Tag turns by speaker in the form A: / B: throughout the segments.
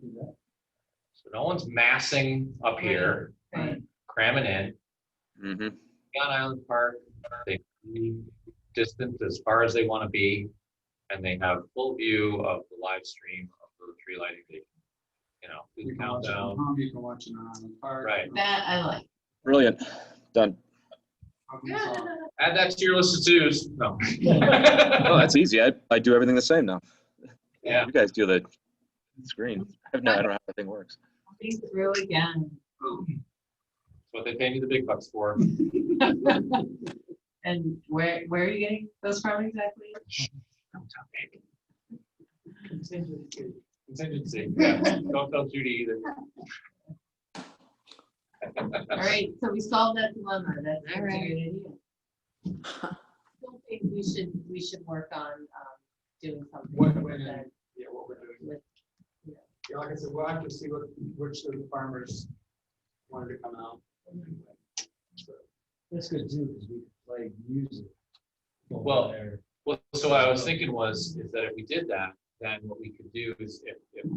A: So no one's massing up here,
B: Right.
A: cramming in.
C: Mhm.
A: Gun Island Park, they distance as far as they want to be. And they have full view of the live stream of the tree lighting. They can, You know, do
D: You
A: the
D: can watch it at
A: countdown.
D: home, you can watch it on the park.
A: Right.
B: That I like.
C: Brilliant. Done.
D: Problems solved.
A: Add that to your list of twos. No.
C: Oh, that's easy. I, I do everything the same now.
A: Yeah.
C: You guys do the screen. I have no, I don't know how the thing works.
B: Think through again.
A: That's what they pay me the big bucks for.
B: And where, where are you getting those from exactly?
A: Contingency. Yeah. Don't tell Judy either.
B: All right, so we solved that dilemma. That's that's a
E: All
B: good
E: right.
B: idea. I still think We should, we should work on um, doing something
D: What-
B: with
D: when in-
B: that.
D: Yeah, what we're doing.
B: with-
D: Yeah, like I said, we'll have to see what, which of the farmers wanted to come out. So,
F: That's good too, because we play music.
A: Well, Well, so what I was thinking was, is that if we did that, then what we could do is if, if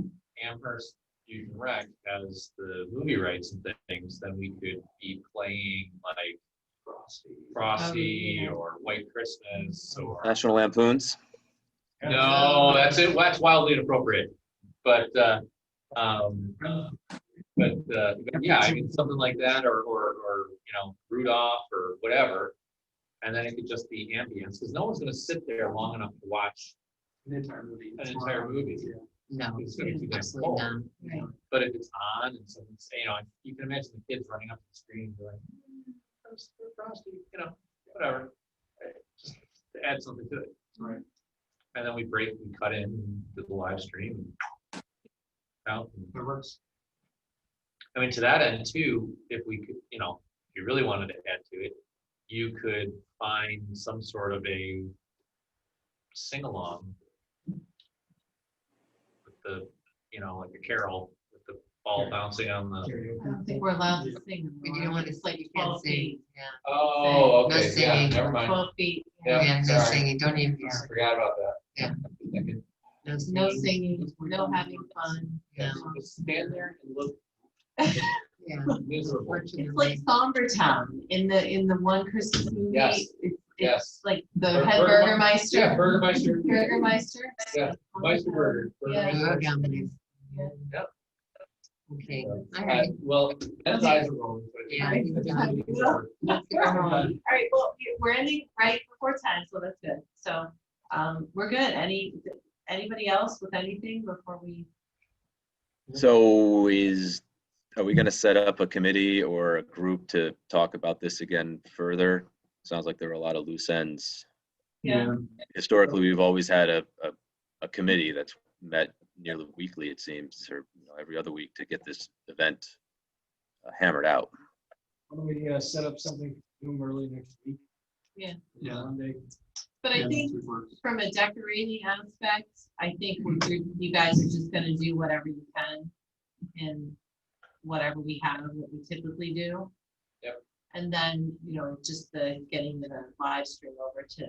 A: Amherst Fusion Rec has the movie rights and things, then we could be playing like
D: Frosty.
A: Frosty
B: yeah.
A: or White Christmas or,
C: National Lampoons.
A: no, that's it, that's wildly inappropriate. But, uh, um, uh, but, uh, but yeah, I mean, something like that or, or, or, you know, Rudolph or whatever. And then it could just be ambience, because no one's gonna sit there long enough to watch
D: An entire movie.
A: An entire movie.
D: Yeah.
E: No,
A: It's gonna be
E: absolutely
A: difficult.
E: not.
B: Right.
A: But if it's on and someone's, you know, you can imagine the kids running up to the screen and going, "Mm, Frosty, Frosty," you know, whatever. Uh, Just to add something to it.
D: Right.
A: And then we break and cut in and do the live stream. and Out. and-
D: That works.
A: I mean, to that end too, if we could, you know, if you really wanted to add to it, you could find some sort of a sing-along with the, you know, like a carol with the ball bouncing on the.
D: Karaoke.
B: I don't think we're allowed to
D: Yeah.
B: sing.
E: We do want to say you can't
B: 12
E: sing.
B: feet.
E: Yeah.
A: Oh,
E: No
A: okay, yeah,
E: singing.
A: never mind.
B: Twelve feet.
A: Yeah,
E: Yeah, no
A: sorry.
E: singing. Don't even,
A: I Forgot about that.
E: Yeah. no
B: No
E: singing.
B: singing, no having fun.
E: Yeah.
B: no.
A: Just Stand there and look
E: Yeah.
A: miserable.
E: Fortunately.
B: It's like Somber Town in the, in the one Christmas movie.
A: Yes.
B: it's- It's
A: Yes.
B: like
A: Bur-
B: the head
A: Burger- Yeah,
B: Burgermeister.
A: Burgermeister.
B: Burgermeister.
A: Yeah, Meister Burger.
B: Yeah.
E: Good company.
B: Yeah.
A: Yep.
E: Okay, all
A: Uh,
E: right.
A: Well, that's eyes are rolling. but-
E: Yeah.
B: That's the one. All right, well, we- we're ending right before time, so that's good. So, um, we're good. Any, anybody else with anything before we?
C: So is, are we going to set up a committee or a group to talk about this again further? Sounds like there were a lot of loose ends. historically, we've always had a, a, a committee that's met nearly weekly, it seems, or you know, every other week to get this event uh, hammered out.
F: Why don't we uh, set up something for them early next week?
B: Yeah.
D: Yeah.
F: Monday.
B: But I
D: Yeah,
B: think
D: that works.
B: from a decorating aspect, I think we're, you you guys are just gonna do whatever you can in whatever we have, what we typically do.
A: Yep.
B: And then, you know, just the getting the live stream over to,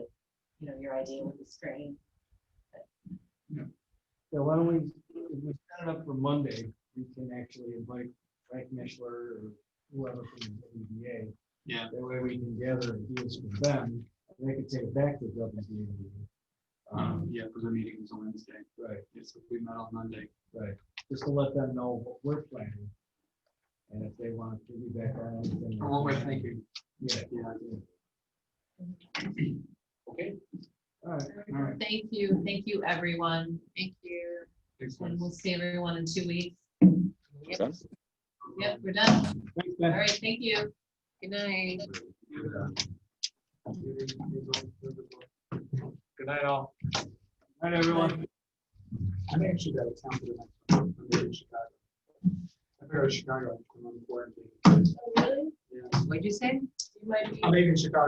B: you know, your idea with the screen.
F: So why don't we, if we set it up for Monday, we can actually invite Frank Mishler or whoever from the WBA.
D: Yeah.
F: That way we can gather ideas from them, and they can take it back to WBA.
D: Um,
F: Um,
D: yeah, because our meeting is on Wednesday.
F: Right,
D: Yes, if we met on Monday.
F: right, just to let them know what we're planning. And if they want to give you back on anything.
D: Or what we're thinking.
F: Yeah,
D: Yeah.
A: Okay,
F: all right.
D: All right.
B: Thank you, thank you, everyone. Thank you.
D: Thanks, guys.
B: And we'll see everyone in two weeks.
C: Makes sense?
B: Yep, we're done.
F: Thanks,
B: All
F: Ben.
B: right, thank you.
E: Good night.
A: good night all.
F: All right, everyone.
D: I'm actually out of town for the next one. I'm going to Chicago. I'm going to Chicago. I'm on quarantine.
B: Really?
D: Yeah.
E: What'd you say?
B: You might be.
D: I'm leaving Chicago.